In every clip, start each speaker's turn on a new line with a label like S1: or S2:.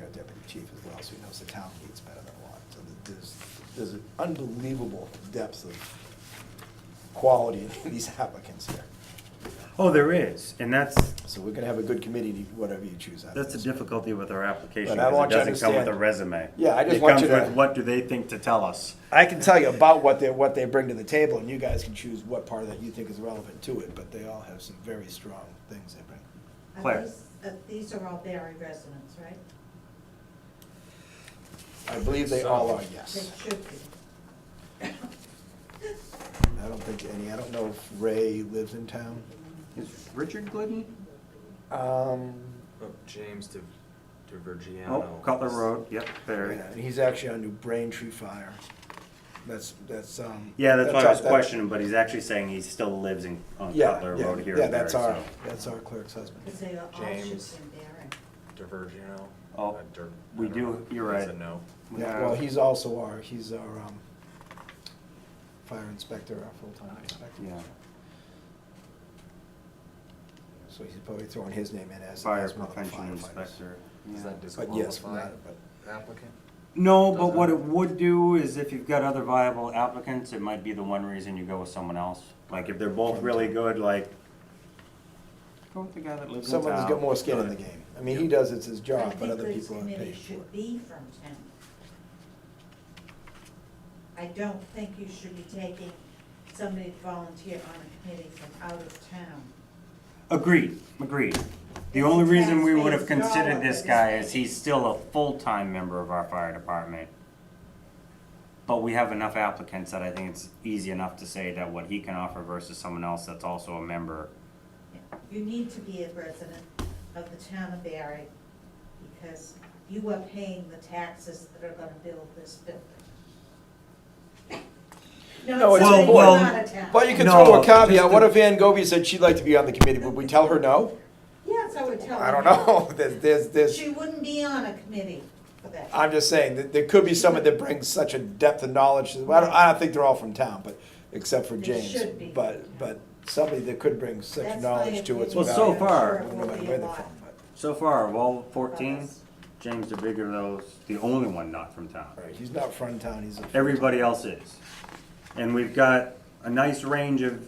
S1: our deputy chief as well, so he knows the town needs better than a lot. So there's, there's an unbelievable depth of quality in these applicants here.
S2: Oh, there is, and that's,
S1: So we're gonna have a good committee, whatever you choose out of
S2: that's the
S1: this.
S2: difficulty with our application,
S1: But I
S2: because
S1: want
S2: it
S1: you to
S2: doesn't come with a
S1: understand-
S2: resume.
S1: Yeah, I just want you
S2: It comes
S1: to-
S2: with what do they think to tell us.
S1: I can tell you about what they, what they bring to the table, and you guys can choose what part of that you think is relevant to it, but they all have some very strong things they bring.
S3: Are
S2: Claire.
S3: these- uh, These are all Barry residents, right?
S1: I believe they all are, yes.
S3: They should be.
S1: I don't think any, I don't know if Ray lives in town.
S2: Is Richard Glidden?
S1: Um,
S4: Oh, James De, DiVergiano.
S2: Oh, Cutler Road, yep,
S1: yeah,
S2: there.
S1: and he's actually on New Braintree Fire. That's, that's, um.
S2: Yeah, that's why I
S1: our-
S2: was
S1: that-
S2: questioning, but he's actually saying he still lives in, on
S1: Yeah,
S2: Cutler
S1: yeah,
S2: Road here
S1: Yeah,
S2: and there,
S1: that's our,
S2: so.
S1: that's our clerk's husband.
S3: Because they all
S4: James.
S3: should be in Barry.
S4: DiVergiano.
S2: Oh,
S4: Uh, Dir-
S2: we
S4: I don't
S2: do-
S4: know.
S2: you're
S4: Is
S2: right.
S4: it no?
S1: Yeah, well, he's also our, he's our, um, fire inspector, our full-time inspector.
S2: Yeah.
S1: So he's probably throwing his name in as.
S2: Fire
S1: as one of the
S2: prevention
S1: firefighters.
S2: inspector.
S4: Does that
S1: But yes, from
S4: disqualify
S1: that, but.
S4: applicant?
S2: No, but what it would do is if you've got other viable applicants, it might be the one reason you go with someone else. Like if they're both really good, like, go with the guy that lives in town.
S1: Someone's got more skin in the game. I mean, he does, it's his
S3: I
S1: job,
S3: think
S1: but other
S3: this
S1: people aren't
S3: committee
S1: paid for
S3: Should
S1: it.
S3: be from town. I don't think you should be taking somebody to volunteer on a committee from out of town.
S2: Agreed, agreed. The only reason we would have
S3: Taxpayers'
S2: considered
S3: dollar
S2: this
S3: for this
S2: guy is
S3: thing.
S2: he's still a full-time member of our fire department. But we have enough applicants that I think it's easy enough to say that what he can offer versus someone else that's also a member.
S3: You need to be a resident of the town of Barry because you are paying the taxes that are gonna build this building.
S1: No,
S3: Not
S1: it's-
S3: saying
S2: Well,
S3: you're not a town.
S1: But you can
S2: No,
S1: throw a
S2: just
S1: caveat, what
S2: the-
S1: if Van Gobi said she'd like to be on the committee, would we tell her no?
S3: Yes, I would tell
S1: I
S3: them
S1: don't know, there's, there's,
S3: that.
S1: there's,
S3: She wouldn't be on a committee for that.
S1: I'm just saying, that there could be someone that brings such a depth of knowledge, to- I don't, I don't think they're all from town, but, except for
S3: They
S1: James.
S3: should be.
S1: But, but somebody that could bring such
S3: That's my
S1: knowledge to it's
S3: opinion.
S2: Well, so
S1: valuable,
S2: far-
S1: no matter where they're from, but-
S2: So far, of all fourteen,
S3: Yes.
S2: James DeBiggio's the only one not from town.
S1: Right, he's not from town, he's a.
S2: everybody else is. And we've got a nice range of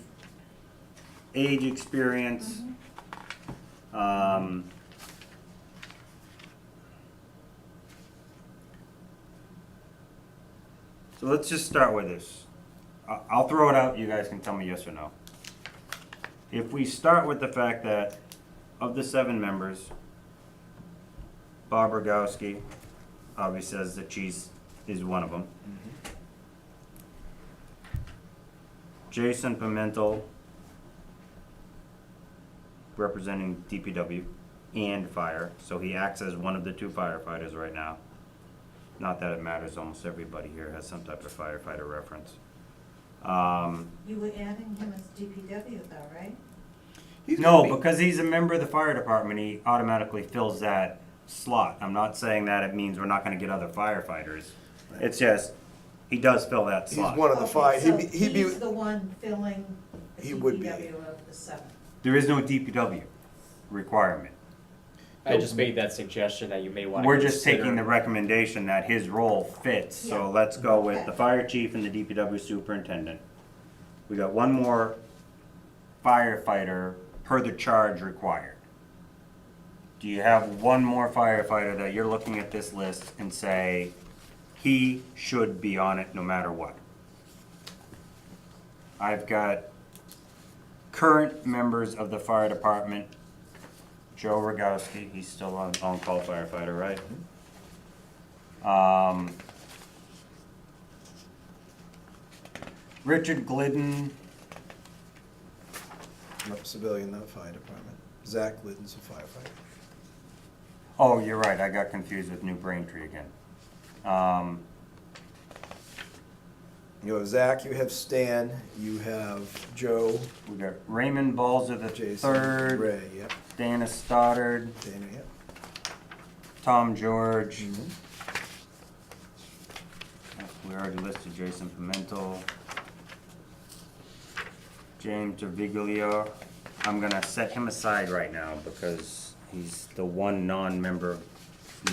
S2: age, experience. Um, So let's just start with this. I- I'll throw it out, you guys can tell me yes or no. If we start with the fact that of the seven members, Bob Rogowski obviously says that she's, is one of them. Jason Pimentel, representing DPW and fire, so he acts as one of the two firefighters right now. Not that it matters, almost everybody here has some type of firefighter reference. Um,
S3: You were adding him as DPW though, right?
S1: He's
S2: no,
S1: gonna be-
S2: because he's a member of the fire department, he automatically fills that slot. I'm not saying that it means we're not gonna get other firefighters. It's just, he does fill that
S1: He's
S2: slot.
S1: one of the
S3: Okay,
S1: five,
S3: so
S1: he'd be, he'd be.
S3: He's the one filling the
S1: He would be.
S3: DPW of the seven.
S2: There is no DPW requirement.
S5: I just made that suggestion that you may want to.
S2: We're just taking the recommendation that his role fits,
S3: Yeah.
S2: so let's go with the
S3: Okay.
S2: fire chief and the DPW superintendent. We got one more firefighter per the charge required. Do you have one more firefighter that you're looking at this list and say, he should be on it no matter what? I've got current members of the fire department. Joe Rogowski, he's still on, on-call firefighter, right? Um, Richard Glidden,
S1: I'm a civilian, not fire department. Zach Liddon's a firefighter.
S2: oh, you're right, I got confused with New Braintree again. Um,
S1: You have Zach, you have Stan, you have Joe,
S2: we got Raymond Balzer the
S1: Jason,
S2: third,
S1: Ray, yep,
S2: Dana Stoddard,
S1: Dana, yep.
S2: Tom George.
S1: Mhm. Mm-hmm.
S2: We already listed Jason Pimentel. James Terviglio. I'm gonna set him aside right now because he's the one non-member